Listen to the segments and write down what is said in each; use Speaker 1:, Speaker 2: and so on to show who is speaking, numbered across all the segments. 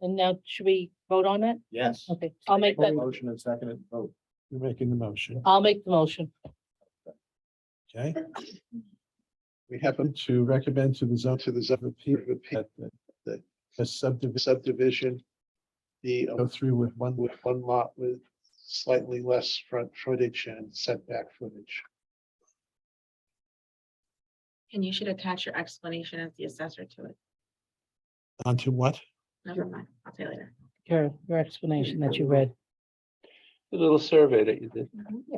Speaker 1: And now should we vote on it?
Speaker 2: Yes.
Speaker 1: Okay, I'll make that,
Speaker 2: Motion and second and vote.
Speaker 3: You're making the motion,
Speaker 1: I'll make the motion.
Speaker 3: okay? We happen to recommend to the zone, to the zone people that, that the subdivision,
Speaker 4: subdivision. The, uh,
Speaker 3: go through with one,
Speaker 4: with one lot with slightly less front footage and setback footage.
Speaker 5: And you should attach your explanation as the assessor to it.
Speaker 3: onto what?
Speaker 5: Never mind, I'll say later.
Speaker 1: Your, your explanation that you read.
Speaker 6: The little survey that you did.
Speaker 7: Mm-hmm.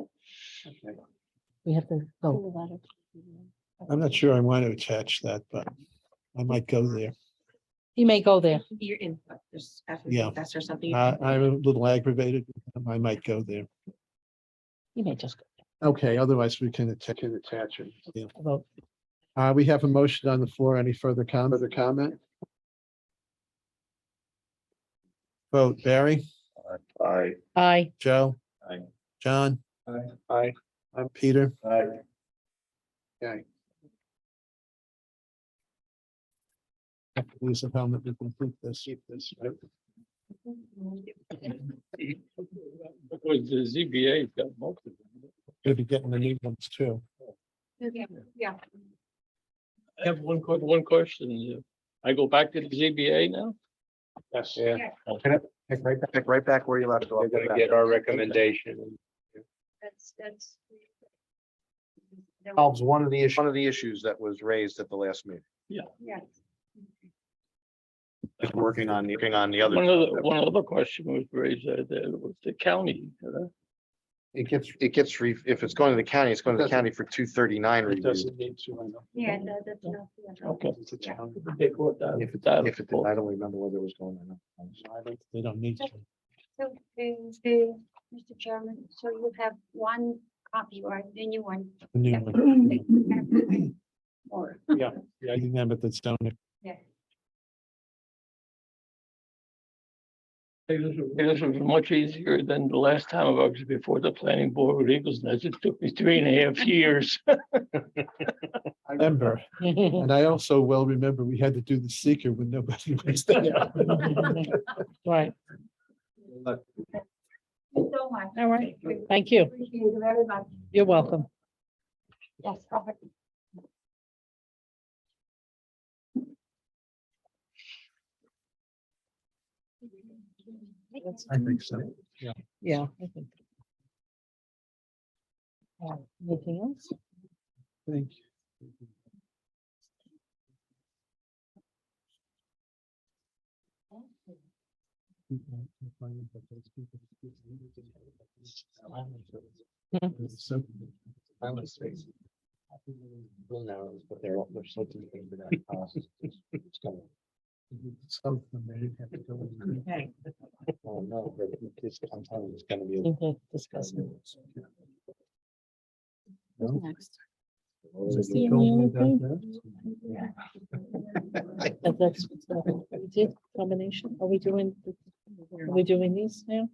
Speaker 4: Okay.
Speaker 1: We have to go.
Speaker 3: I'm not sure I want to attach that, but I might go there.
Speaker 1: He may go there.
Speaker 5: Your input, there's,
Speaker 3: Yeah.
Speaker 5: that's or something. you
Speaker 3: I,
Speaker 5: can-
Speaker 3: I'm a little aggravated, with them. I might go there.
Speaker 1: He may just
Speaker 3: Okay, otherwise we can attach, can attach it. Yeah.
Speaker 1: go vote.
Speaker 3: Uh, we have a motion on the floor. Any further comment, further comment? Vote Barry,
Speaker 2: Aye.
Speaker 1: Aye.
Speaker 3: Joe.
Speaker 2: Aye.
Speaker 3: John.
Speaker 2: Aye.
Speaker 4: Aye.
Speaker 3: I'm Peter.
Speaker 2: Aye.
Speaker 3: Police of Helmet, we complete this.
Speaker 4: Keep this, right?
Speaker 6: Because the ZBA's got most of them.
Speaker 3: Gonna be getting the new ones too.
Speaker 5: Yeah.
Speaker 6: I have one que- one question. I go back to the ZBA now?
Speaker 4: Yes.
Speaker 2: Pick right, back- pick right back where you left off.
Speaker 6: They're gonna get our recommendation.
Speaker 7: That's, that's.
Speaker 2: Solves one of the issues, one of the issues that was raised at the last meeting.
Speaker 7: Yeah.
Speaker 2: Just working on, working on the
Speaker 6: One other, one other question was raised uh, there was the county. uh,
Speaker 2: It gets, it gets, re- if it's going to the county, it's going to the county for two thirty-nine
Speaker 4: It
Speaker 2: review.
Speaker 4: doesn't need to, I know.
Speaker 7: Yeah, that- that's not. yeah.
Speaker 6: Okay.
Speaker 4: It's a town.
Speaker 6: They brought that-
Speaker 2: If it,
Speaker 6: that
Speaker 2: if it,
Speaker 6: forth.
Speaker 2: I don't remember whether it was going or not.
Speaker 3: They don't need to.
Speaker 7: So, um, the, Mr. Chairman, so you have one copy or the new one?
Speaker 3: The new
Speaker 7: Yeah.
Speaker 3: one.
Speaker 7: Or,
Speaker 3: Getting them at the stone.
Speaker 7: yeah.
Speaker 6: Hey, This was- this was much easier than the last time I was before the planning board with Eagles Nest. It took me three and a half years.
Speaker 3: Remember, and I also well remember we had to do the seeker when nobody was there.
Speaker 1: Right,
Speaker 7: Thank you so much.
Speaker 1: all right. Thank you.
Speaker 7: Appreciate it very much.
Speaker 1: You're welcome.
Speaker 7: Yes, Robert.
Speaker 3: I think so.
Speaker 1: Yeah. I think. Uh, Anything else?
Speaker 3: Thank you.
Speaker 2: Little narrows, but they're, all- they're so deep into that process, it's- it's gonna-
Speaker 3: Some of them, they didn't have to go in.
Speaker 5: Okay.
Speaker 2: oh, no, but it's- I'm telling you, it's gonna be a-
Speaker 1: Anything to discuss?
Speaker 5: Next.
Speaker 1: Just
Speaker 3: They
Speaker 1: the
Speaker 3: don't
Speaker 1: only
Speaker 3: have that
Speaker 1: That- That's uh, we did combination. Are we doing, are we doing these now?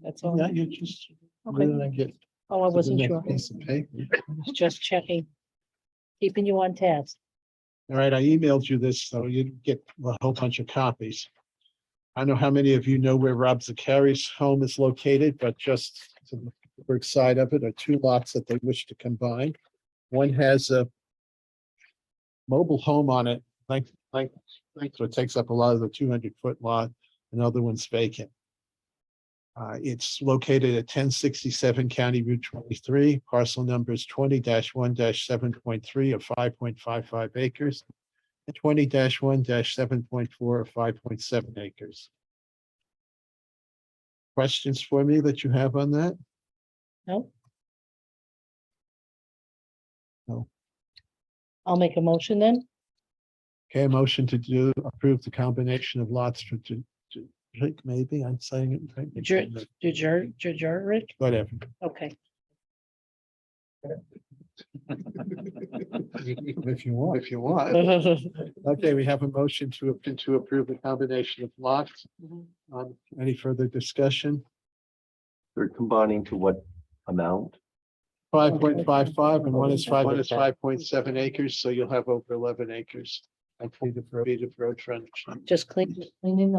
Speaker 1: That's
Speaker 3: there.
Speaker 1: all.
Speaker 3: Yeah, you just.
Speaker 1: Okay.
Speaker 3: then I get to
Speaker 1: Oh, I
Speaker 3: the
Speaker 1: wasn't
Speaker 3: next
Speaker 1: sure.
Speaker 3: Piece of paper.
Speaker 1: Just checking. Keeping you on task.
Speaker 3: All right, I emailed you this, so you get a whole bunch of copies. I don't know how many of you know where Rob Zakari's home is located, but just to the Pittsburgh side of it are two lots that they wish to combine. One has a mobile home on it, like, like, like, so it takes up a lot of the two hundred foot lot, another one's vacant. Uh, it's located at ten sixty-seven County Route twenty-three, parcel numbers twenty one seven point three or five point five five acres. And twenty one seven point four or five point seven acres. Questions for me that you have on that?
Speaker 1: No?
Speaker 3: No.
Speaker 1: I'll make a motion then.
Speaker 3: Okay, a motion to do, approve the combination of lots for, to, to, maybe I'm saying it. right?
Speaker 1: Jer- Jujur, Jujuric?
Speaker 3: Whatever.
Speaker 1: Okay,
Speaker 3: If you want.
Speaker 4: If you want.
Speaker 1: I'll
Speaker 3: Okay, we have a motion to, ap- to approve the combination of lots.
Speaker 1: Mhm.
Speaker 3: Um, any further discussion?
Speaker 8: They're combining to what amount?
Speaker 3: Five point five five and one is five, one is
Speaker 8: Okay.
Speaker 3: five point seven acres, so you'll have over eleven acres. I plead the, road- feet of road frontage.
Speaker 1: just clean, cleaning